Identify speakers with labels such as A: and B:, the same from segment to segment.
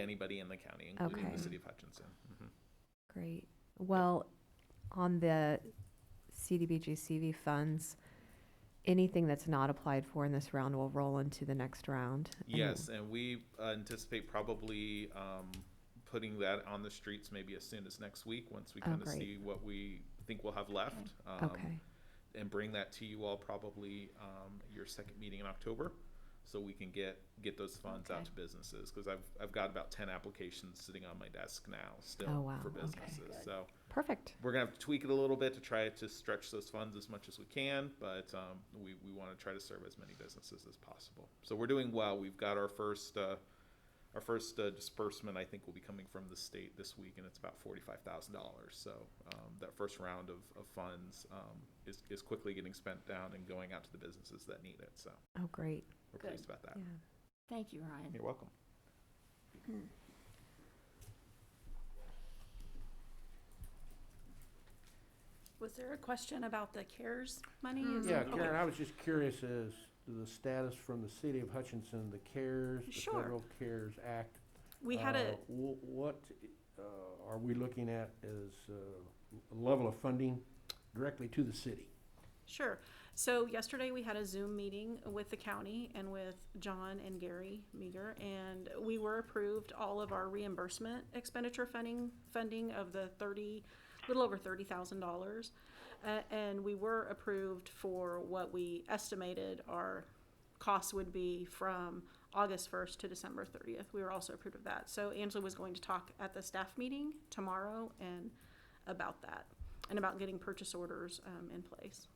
A: anybody in the county, including
B: Okay.
A: the city of Hutchinson. Mhm.
B: Great. Well, on the CDBG-CV funds, anything that's not applied for in this round will roll into the next round. and-
A: Yes, and we uh, anticipate probably um, putting that on the streets maybe as soon as next week, once we
B: Oh,
A: kind of
B: great.
A: see what we think we'll have left. um,
B: Okay,
A: And bring that to you all probably um, your second meeting in October, so we can get, get those funds out
C: Okay.
A: to businesses. Because I've, I've got about ten applications sitting on my desk now,
B: Oh,
A: still,
B: wow,
A: for
B: okay.
A: businesses. So
B: perfect.
A: we're gonna have to tweak it a little bit to try to stretch those funds as much as we can, but um, we, we want to try to serve as many businesses as possible. So we're doing well. We've got our first uh, our first uh, disbursement. I think will be coming from the state this week, and it's about forty five thousand dollars. So um, that first round of, of funds um, is is quickly getting spent down and going out to the businesses that need it. So
B: Oh, great,
A: we're
C: Good.
A: pleased about that.
B: yeah.
C: Thank you, Ryan.
A: You're welcome.
C: Was there a question about the CARES money?
D: Mm.
C: Is
D: Yeah,
C: it-
D: Karen,
C: okay.
D: I was just curious as to the status from the city of Hutchinson, the CARES, the
C: Sure.
D: Federal CARES Act.
C: We had
D: Uh,
C: a,
D: wh- What uh, are we looking at as uh, level of funding directly to the city?
C: sure. So yesterday, we had a Zoom meeting with the county and with John and Gary Meager, and we were approved all of our reimbursement expenditure funding, funding of the thirty, little over thirty thousand dollars. Uh, and we were approved for what we estimated our costs would be from August first to December thirtieth. We were also approved of that. So Angela was going to talk at the staff meeting tomorrow and about that, and about getting purchase orders, um, in place.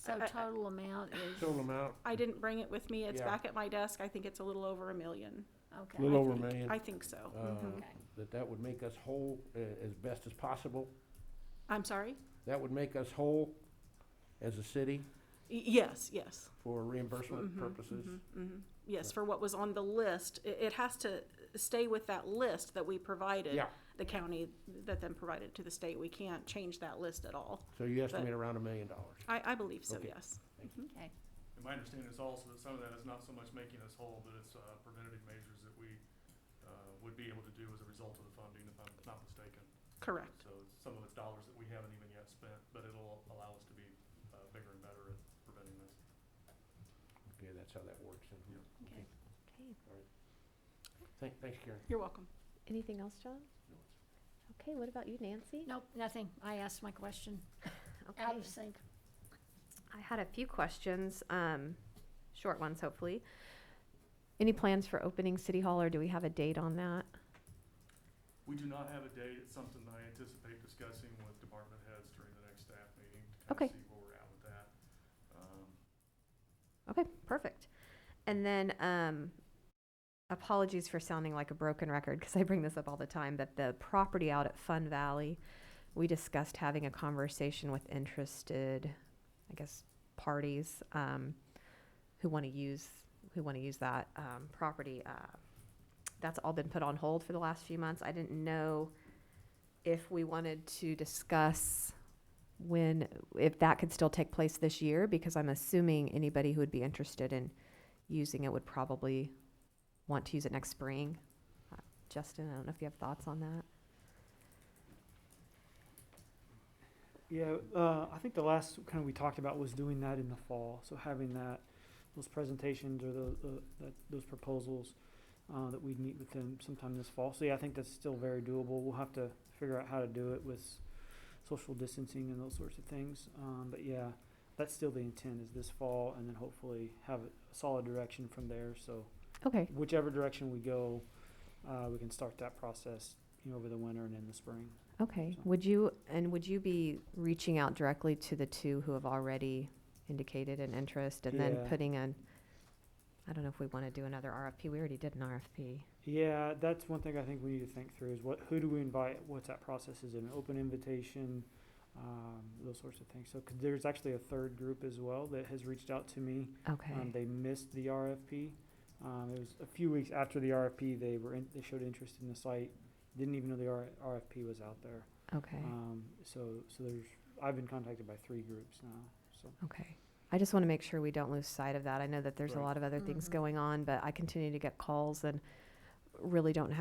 E: So
C: I- I-
E: total amount is,
D: Total amount,
C: I didn't bring it with me. It's
D: Yeah.
C: back at my desk. I think it's a little over a million.
D: a
E: okay,
D: little
C: I
D: over a
C: think-
D: million,
C: I think so.
D: uh,
C: Mhm.
E: okay.
D: that that would make us whole uh, as best as possible.
C: I'm sorry?
D: That would make us whole as a city
C: Y- Yes, yes.
D: for reimbursement
C: Mhm,
D: purposes.
C: mhm, mhm. Yes, for what was on the list. It, it has to stay with that list that we provided.
D: Yeah.
C: The county that then provided to the state. We can't change that list at all.
D: So you estimate around a million dollars.
C: I, I believe so,
D: Okay.
C: yes. Mm-hmm.
E: okay.
F: And my understanding is also that some of that is not so much making us whole, but it's uh, preventative measures that we uh, would be able to do as a result of the funding, if I'm not mistaken.
C: Correct.
F: So it's- some of it's dollars that we haven't even yet spent, but it'll allow us to be uh, bigger and better at preventing this.
D: Okay, that's how that works. in here.
E: Okay.
B: Okay.
D: Thank- Thanks, Karen.
C: You're welcome.
B: Anything else, John? Okay, what about you, Nancy?
E: Nope, nothing. I asked my question.
B: Okay.
E: Out of sync.
B: I had a few questions, um, short ones hopefully. Any plans for opening City Hall or do we have a date on that?
F: We do not have a date. It's something that I anticipate discussing with department heads during the next staff meeting to
B: Okay.
F: kind of see where we're at with that. Um,
B: Okay, perfect. And then, um, apologies for sounding like a broken record because I bring this up all the time, but the property out at Fun Valley, we discussed having a conversation with interested, I guess, parties, um, who want to use, who want to use that, um, property. Uh, That's all been put on hold for the last few months. I didn't know if we wanted to discuss when, if that could still take place this year, because I'm assuming anybody who would be interested in using it would probably want to use it next spring. Uh, Justin, I don't know if you have thoughts on that.
G: Yeah, uh, I think the last kind of we talked about was doing that in the fall. So having that, those presentations or the, the that, those proposals uh, that we'd meet with them sometime this fall. So yeah, I think that's still very doable. We'll have to figure out how to do it with social distancing and those sorts of things. Um, but yeah, that's still the intent is this fall, and then hopefully have a solid direction from there. So
B: Okay,
G: whichever direction we go, uh, we can start that process you know over the winter and in the spring.
B: okay.
G: So-
B: Would you, and would you be reaching out directly to the two who have already indicated an interest and then
G: Yeah.
B: putting an, I don't know if we want to do another RFP. We already did an RFP.
G: Yeah, that's one thing I think we need to think through is what, who do we invite? What's that process? Is it an open invitation? Um, those sorts of things. So, 'cause there's actually a third group as well that has reached out to me.
B: Okay,
G: Um, they missed the RFP. Um, it was a few weeks after the RFP, they were in, they showed interest in the site. Didn't even know the R- RFP was out there.
B: okay,
G: Um, so, so there's, I've been contacted by three groups now, so.
B: okay. I just want to make sure we don't lose sight of that. I know that there's a
G: Right.
B: lot of other things
E: Mhm.
B: going on, but I continue to get calls and really don't have.